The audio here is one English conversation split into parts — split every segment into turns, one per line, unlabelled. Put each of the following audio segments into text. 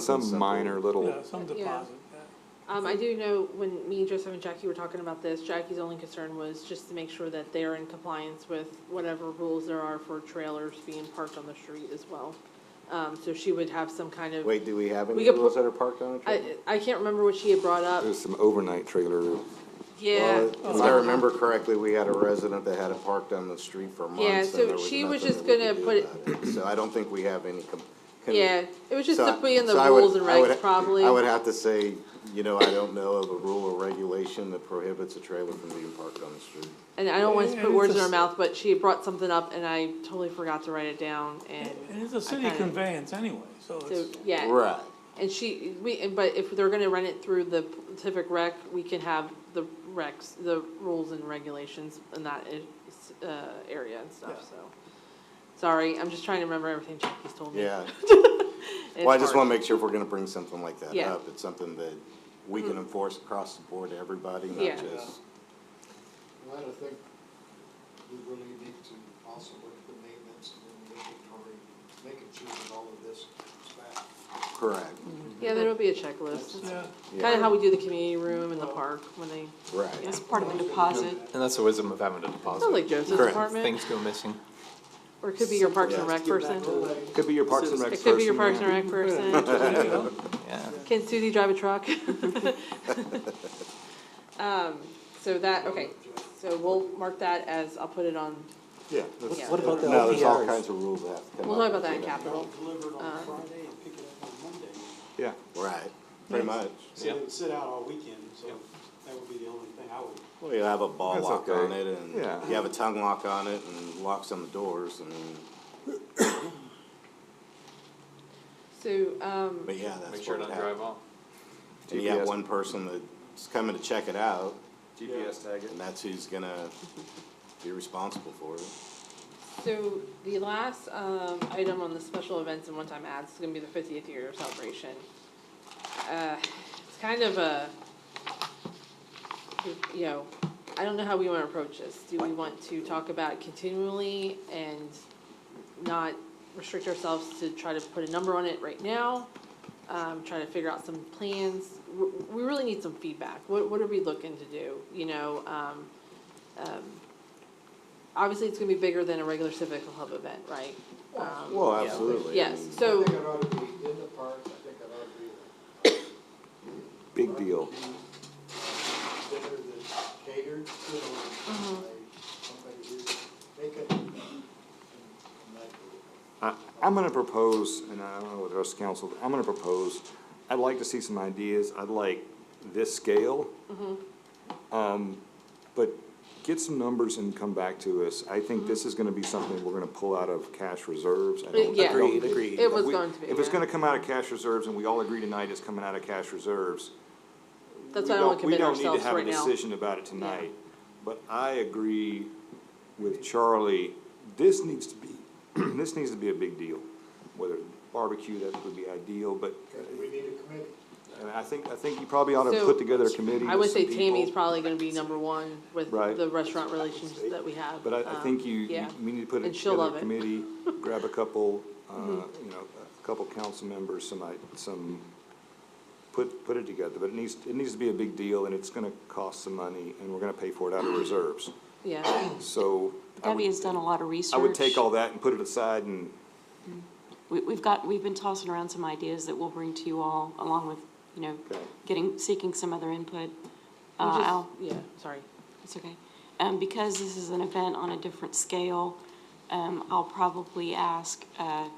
Some
something.
minor little,
Yeah, some
Yeah.
deposit, yeah.
Um, I do know when me, Joseph, and Jackie were talking about this, Jackie's only concern was just to make sure that they're in compliance with whatever rules there are for trailers being parked on the street as well. Um, so she would have some kind of,
Wait, do we have
We
any
could
rules
put-
that are parked on a trailer?
I, I can't remember what she had brought up.
there's some overnight trailer,
uh,
Yeah.
Well, If I remember correctly, we had a resident that had it parked on the street for months.
Yeah,
and
so
there was
she was
nothing
just
that we
gonna
could do
put it-
about it. So I don't think we have any. com- con-
Yeah, it was just
So
to
I-
be in the
so I would-
rules and
I would-
regs probably.
I would have to say, you know, I don't know of a rule or regulation that prohibits a trailer from being parked on the street.
And I don't want to
And
put
it's
words
a
in her
s-
mouth, but she had brought something up and I totally forgot to write it down and.
And it's a
I
city
kinda-
conveyance anyway, so
So,
it's,
yeah.
Right.
And she, we, and- but if they're gonna run it through the Pacific Rec, we can have the recs, the rules and regulations in that, i- uh, area and
Yeah.
stuff, so. Sorry, I'm just trying to remember everything Jackie's told me.
Yeah.
It's
Well, I just
hard.
want to make sure if we're going to bring something like that
Yeah. Mm-hmm.
up, it's something that we can enforce across the board to everybody,
Yeah.
not just.
Well, I think we really need to also look at the maintenance and the inventory, making sure that all of this comes back.
Correct.
Yeah, there'll be a checklist.
yeah,
Kinda how we do the community room and the park when they,
Right.
yeah.
It's part of a deposit.
And that's the wisdom of having a
Sounds like
deposit.
Joseph's
Correct.
apartment,
Things go missing.
or it could be your Parks and
Yeah.
Rec person.
could be your Parks and Rec
It
person.
could be your Parks and
yeah.
Rec person.
there you go.
Yeah.
Can Susie drive a truck? Um, so that, okay, so we'll mark that as, I'll put it on,
Yeah.
Yeah.
What about the No, there's all kinds of rules that have to come
we'll talk
up
about
with
that in
that.
capital.
delivered
Uh,
on Friday and pick it up on Monday.
Yeah,
Right, pretty much.
So it would sit out all weekend, so that would be the only thing I would.
Well, you have a ball
That's
lock
okay.
on it and
Yeah.
you have a tongue lock on it and locks on the doors and,
So, um,
but yeah, that's what
Make sure
would
not
happen.
drive off.
And you have
GPS.
one person that's coming to check it out
GPS
tag it. And that's who's gonna be responsible for it.
so the last, um, item on the special events and one-time ads is gonna be the fiftieth year celebration. Uh, it's kind of a, you know, I don't know how we wanna approach this. Do we want to talk about it continually and not restrict ourselves to try to put a number on it right now? um, try to figure out some plans. W- We really need some feedback. What, what are we looking to do? You know, um, um, obviously it's gonna be bigger than a regular civic club event, right? Um,
Well, absolutely.
Yes,
And
I
so,
think it ought to be in the park, I think it ought to be.
big deal.
uh, Dinner that's catered, you know, by somebody who they could. and- and that-
I, I'm gonna propose, and I don't know what the rest of council, I'm gonna propose, I'd like to see some ideas, I'd like this scale.
Mm-hmm.
Um, but get some numbers and come back to us, I think
Mm-hmm.
this is gonna be something we're gonna pull out of cash reserves. I don't- I
Yeah.
don't-
Agreed, agreed. It was
We-
going to be,
If it's
yeah.
gonna come out of cash reserves, and we all agree tonight it's coming out of cash reserves,
that's
we
why I don't wanna
don't- we
commit
don't need to
ourselves
have a
right now.
Decision about it tonight, but I agree with Charlie, this needs to be, this needs to be a big deal. Whether barbecue, that would be ideal, but,
Because we need a committee.
and I think, I think you probably ought to
So,
put together a committee
I would
with some
say Tammy's
people.
probably gonna be number one with
Right.
the restaurant relations that we have.
But I, I
Um,
think you, you-
Yeah,
we need to put
And she'll
together
love
a
it. Mm-hmm.
committee, grab a couple, uh, you know, a couple council members, some, i- some, put, put it together, but it needs, it needs to be a big deal, and it's gonna cost some money, and we're gonna pay for it out of reserves,
yeah,
so. I would-
Debbie has done a lot of research.
I would take all that and put it aside and,
We, we've got, we've been tossing around some ideas that we'll bring to you all, along with, you know,
Okay.
getting, seeking some other input. Uh,
We just-
Al,
yeah, sorry.
it's okay. Um, because this is an event on a different scale, um, I'll probably ask, uh,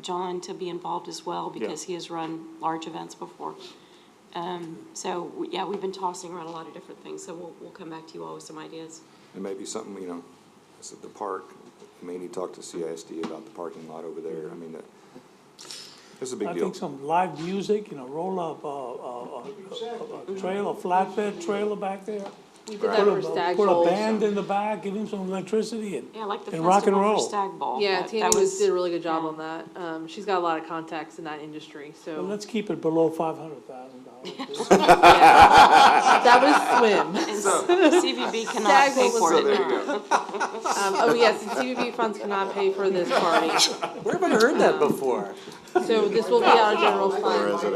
John to be involved as well, because he has run large events before. Um, so, we- yeah, we've been tossing around a lot of different things, so we'll, we'll come back to you all with some ideas.
and maybe something, you know, it's at the park, maybe talk to CISD about the parking lot over there, I mean, that, it's a big
I
deal.
think some live music, you know, roll up, uh, uh, uh, a- a- a trail, a flatbed trailer back there,
We did that
Put
for
a,
Stag
put a
Bowls.
band in the back, give him some electricity and,
Yeah, like the
and rock and
festival for
roll.
Stag Ball.
Yeah,
that-
Tammy
that
was, did a really good job on that. Um, she's got a lot of contacts in that industry,
Well,
so.
let's keep it below five hundred thousand dollars.
yeah. That was swim.
And CVB cannot
Stag
pay
Bowl
for
was
it.
swim. Um, oh yes, and CBB funds cannot pay for this party, Um,
Where have I heard that before?
so this will be out of general fund.
Or as a